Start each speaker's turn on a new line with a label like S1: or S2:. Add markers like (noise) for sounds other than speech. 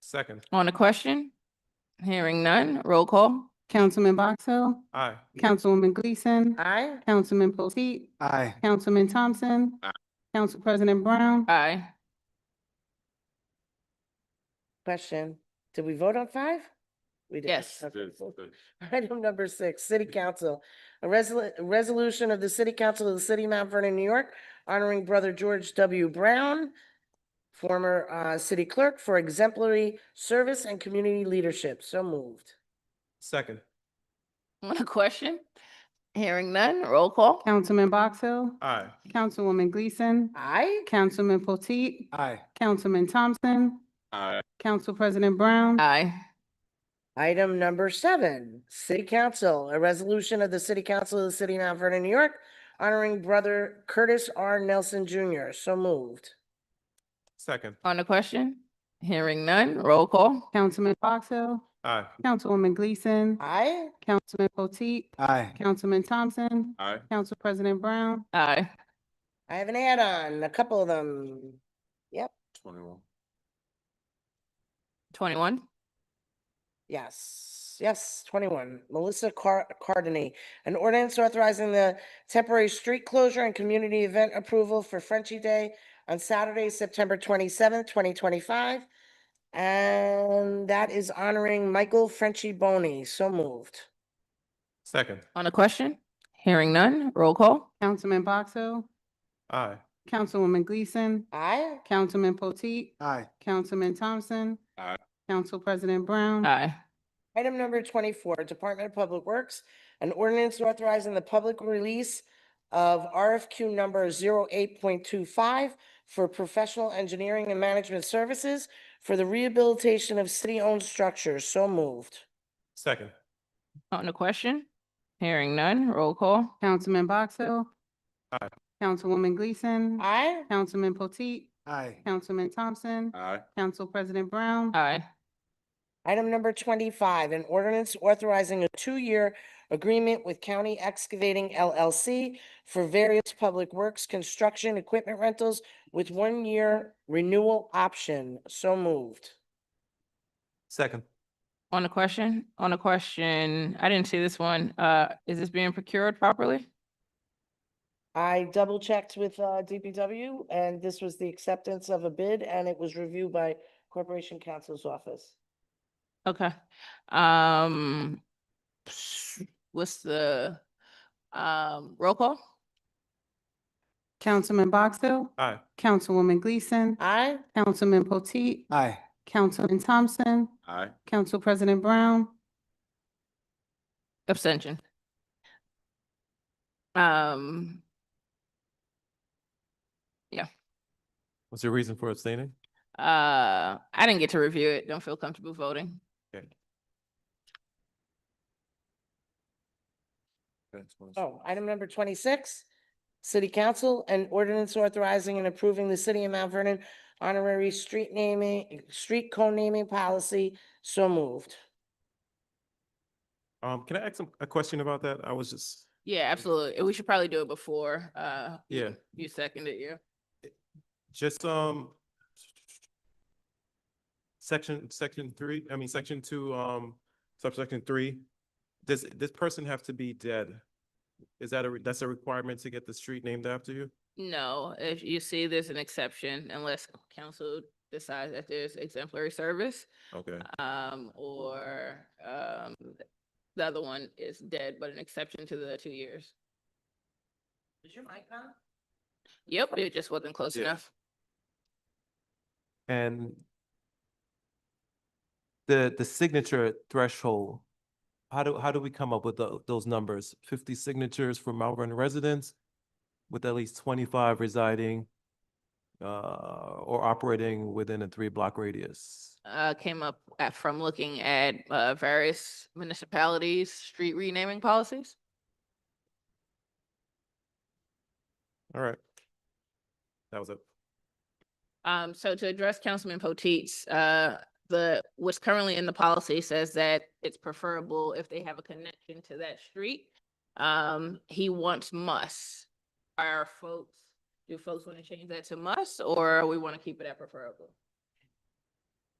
S1: Second,
S2: On the question? Hearing none, roll call.
S3: Councilman Box Hill,
S1: aye.
S3: Councilwoman Gleason,
S4: Aye.
S3: Councilman Potteet,
S5: Aye.
S3: Councilman Thompson,
S1: Aye.
S3: Council President Brown,
S2: Aye.
S4: Question, did we vote on five? We did.
S2: Yes.
S4: Okay, cool. (laughs) Item number six, city council, a resol- a resolution of the city council of the city of Mount Vernon, New York, honoring brother George W. Brown, former uh city clerk for exemplary service and community leadership. So moved.
S1: Second,
S2: On the question? Hearing none, roll call.
S3: Councilman Box Hill,
S1: aye.
S3: Councilwoman Gleason,
S4: Aye.
S3: Councilman Potteet,
S5: Aye.
S3: Councilman Thompson,
S1: Aye.
S3: Council President Brown,
S2: Aye.
S4: Item number seven, city council, a resolution of the city council of the city of Mount Vernon, New York, honoring brother Curtis R. Nelson Jr. So moved.
S1: Second,
S2: On the question? Hearing none, roll call.
S3: Councilman Box Hill,
S1: aye.
S3: Councilwoman Gleason,
S4: Aye.
S3: Councilman Potteet,
S5: Aye.
S3: Councilman Thompson,
S1: Aye.
S3: Council President Brown,
S2: Aye.
S4: I have an add-on, a couple of them.
S1: Twenty-one.
S2: Twenty-one.
S4: Yes, yes, twenty-one. Melissa Car- Cardini, an ordinance authorizing the temporary street closure and community event approval for Frenchy Day on Saturday, September twenty-seventh, twenty twenty-five. And that is honoring Michael Frenchy Boney. So moved.
S1: Second,
S2: On the question? Hearing none, roll call.
S3: Councilman Box Hill,
S1: aye.
S3: Councilwoman Gleason,
S4: Aye.
S3: Councilman Potteet,
S5: Aye.
S3: Councilman Thompson.
S1: Aye.
S3: Council President Brown.
S2: Aye.
S4: Item number twenty-four, Department of Public Works, an ordinance authorizing the public release of RFQ number 08.25 for professional engineering and management services for the rehabilitation of city-owned structures. So moved.
S1: Second,
S2: On the question? Hearing none, roll call.
S3: Councilman Box Hill.
S1: Aye.
S3: Councilwoman Gleason.
S4: Aye.
S3: Councilman Potteet,
S5: Aye.
S3: Councilman Thompson,
S1: aye.
S3: Council President Brown.
S2: Aye.
S4: Item number twenty-five, an ordinance authorizing a two-year agreement with County Excavating LLC for various public works, construction, equipment rentals with one-year renewal option. So moved.
S1: Second,
S2: On the question? On the question, I didn't see this one. Uh, is this being procured properly?
S4: I double checked with uh DPW and this was the acceptance of a bid and it was reviewed by Corporation Counsel's Office.
S2: Okay, um, s- what's the, um, roll call?
S3: Councilman Box Hill,
S1: aye.
S3: Councilwoman Gleason,
S4: Aye.
S3: Councilman Potteet,
S5: Aye.
S3: Councilman Thompson,
S1: Aye.
S3: Council President Brown.
S2: Abstention. Um,
S1: What's your reason for abstaining?
S2: uh, I didn't get to review it. Don't feel comfortable voting.
S4: Oh, item number twenty-six, City Council and ordinance authorizing and approving the City of Mount Vernon honorary street naming, street co-naming policy. So moved. Oh.
S1: Um, can I ask some- a question about that? I was just,
S2: Yeah, absolutely. We should probably do it before, uh,
S1: yeah,
S2: you seconded you.
S1: just, um, section, section three, I mean, section two, um, subsection three, does this person have to be dead? Is that a, re- that's a requirement to get the street named after you?
S2: No, if you see there's an exception unless council decides that there's exemplary service.
S1: Okay,
S2: Um, or, um, th- the other one is dead, but an exception to the two years.
S4: Is your mic on?
S2: Yep, it just wasn't close
S1: Yeah.
S2: enough.
S6: And the, the signature threshold, how do, how do we come up with tho- those numbers? Fifty signatures for Mount Vernon residents with at least twenty-five residing uh, or operating within a three-block radius.
S2: Uh, came up at, from looking at, uh, various municipalities' street renaming policies.
S1: all right. That was it.
S2: Um, so to address Councilman Potteet's, uh, the, what's currently in the policy says that it's preferable if they have a connection to that street. Um, he wants must. Are folks, do folks want to change that to must, or we want to keep it at preferable?